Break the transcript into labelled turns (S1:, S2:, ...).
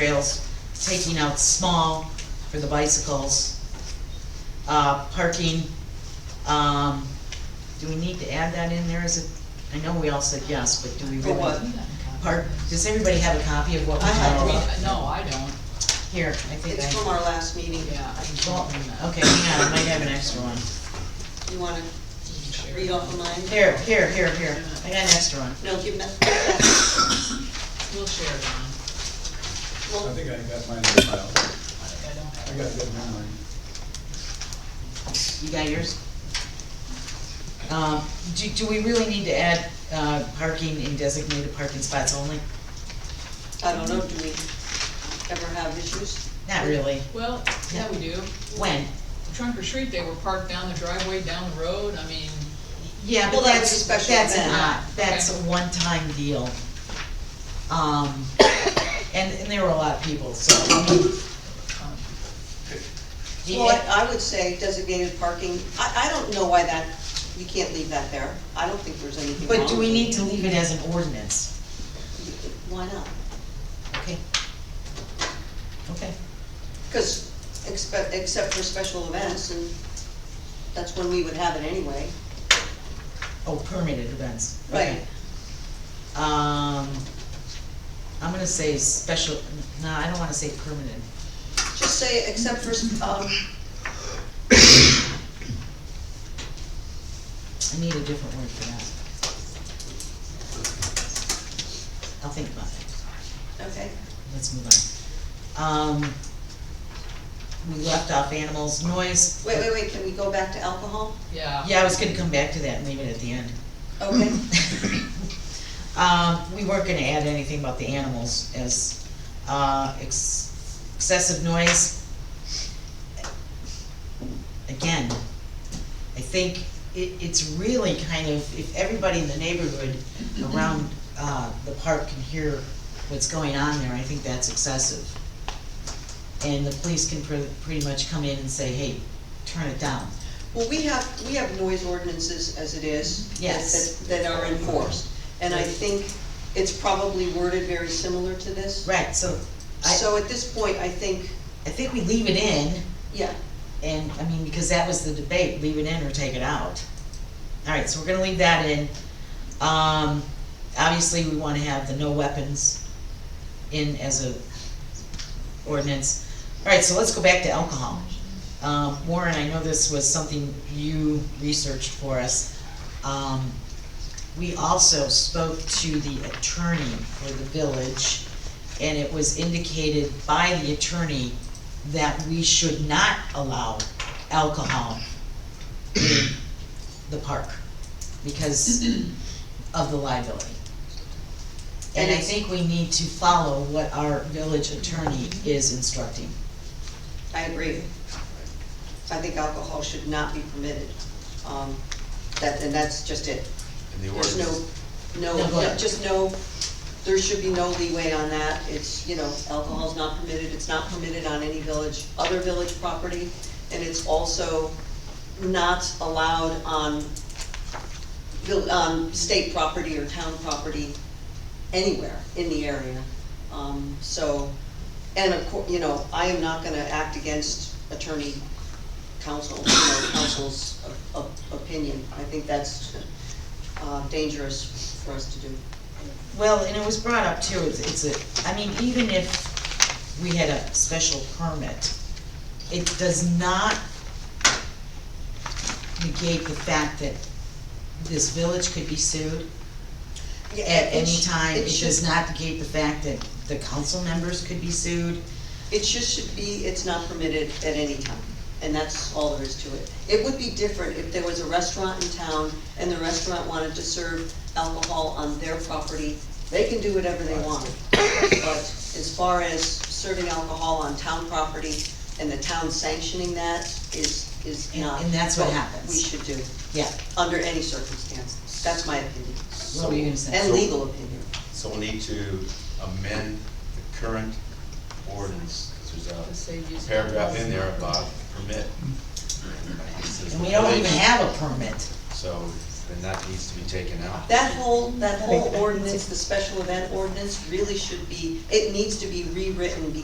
S1: trails, taking out small for the bicycles. Uh, parking, um, do we need to add that in there? Is it, I know we all said yes, but do we
S2: For
S1: really?
S2: what?
S1: Park, does everybody have a copy of what we
S3: I have,
S1: talked
S3: we,
S1: about?
S3: uh, no, I don't,
S1: Here, I think
S2: It's from
S1: I,
S2: our last meeting.
S3: yeah.
S1: well, okay, hang on, I might have an extra one.
S2: You wanna read off of mine?
S1: Here, here, here, here, I got an extra one.
S2: No, give that,
S3: We'll share it on,
S2: well,
S4: I think I got mine in the file.
S3: I don't
S4: I
S3: have.
S4: got a good memory.
S1: You got yours? Um, do, do we really need to add, uh, parking in designated parking spots only?
S2: I don't know, do we ever have issues?
S1: Not really.
S3: Well, yeah, we do.
S1: When?
S3: Trunk or treat, they were parked down the driveway, down the road, I mean,
S1: Yeah,
S2: Well,
S1: but
S2: that
S1: that's,
S2: was a special
S1: that's an
S2: event.
S1: odd, that's a
S3: Okay.
S1: one-time deal. Um, and, and there were a lot of people, so, I mean,
S3: um,
S1: the-
S2: Well, I I would say designated parking, I, I don't know why that, you can't leave that there. I don't think there's anything wrong.
S1: but do we
S2: with
S1: need
S2: it.
S1: to leave it as an ordinance?
S2: Why not?
S1: Okay. Okay,
S2: Because, except, except for special events, and that's when we would have it anyway.
S1: oh, permitted events, okay. Um, I'm gonna say special, no, I don't wanna say permanent,
S2: Just say, except for, um,
S1: I need a different word for that. I'll think about it.
S2: okay,
S1: Let's move on. Um, we left off animals, noise.
S2: wait, wait, wait, can we go back to alcohol?
S3: yeah.
S1: Yeah, I was gonna come back to that and leave it at the end.
S2: Okay,
S1: Um, we weren't gonna add anything about the animals as, uh, ex- excessive noise. Again, I think it, it's really kind of, if everybody in the neighborhood around, uh, the park can hear what's going on there, I think that's excessive. And the police can pre- pretty much come in and say, hey, turn it down.
S2: well, we have, we have noise ordinances as it is. that-
S1: Yes.
S2: That that are enforced, and I think it's probably worded very similar to this.
S1: Right, so I,
S2: So at this point, I think,
S1: I think we leave it in.
S2: yeah,
S1: And, I mean, because that was the debate, leave it in or take it out. All right, so we're gonna leave that in. Um, obviously, we wanna have the no weapons in as a ordinance. All right, so let's go back to alcohol. Um, Warren, I know this was something you researched for us. Um, we also spoke to the attorney for the village, and it was indicated by the attorney that we should not allow alcohol in the park because of the liability. And I think we need to follow what our village attorney is instructing.
S2: I agree. I think alcohol should not be permitted. Um, That, and that's just it.
S5: In the
S2: There's no,
S5: ordinance,
S2: no,
S1: No, go ahead.
S2: just no, there should be no leeway on that. It's, you know, alcohol's not permitted, it's not permitted on any village, other village property, and it's also not allowed on, vil- on state property or town property anywhere in the area. Um, so, and of cour, you know, I am not gonna act against attorney counsel, you know, counsel's o- o- opinion. I think that's uh, dangerous for us to do.
S1: Well, and it was brought up too, it's, it's a, I mean, even if we had a special permit, it does not negate the fact that this village could be sued
S2: Yeah,
S1: at
S2: it
S1: any
S2: sh-
S1: time. It
S2: should-
S1: does not negate the fact that the council members could be sued.
S2: It just should be, it's not permitted at any time, and that's all there is to it. It would be different if there was a restaurant in town and the restaurant wanted to serve alcohol on their property. They can do whatever they want. But as far as serving alcohol on town property and the town sanctioning that is, is
S1: And-
S2: not.
S1: and that's what
S2: We
S1: happens.
S2: should do,
S1: Yeah,
S2: under any circumstance. That's my opinion,
S1: what were you gonna say?
S2: and
S5: So-
S2: legal opinion.
S5: so we'll need to amend the current ordinance,
S3: To
S5: because
S3: save you
S5: there's a
S3: some-
S5: paragraph in there about permit. It says
S1: And we don't
S5: village,
S1: even have a permit.
S5: So then that needs to be taken out.
S2: That whole,
S6: Make
S2: that whole
S6: it-
S2: ordinance, the special event ordinance, really should be, it needs to be rewritten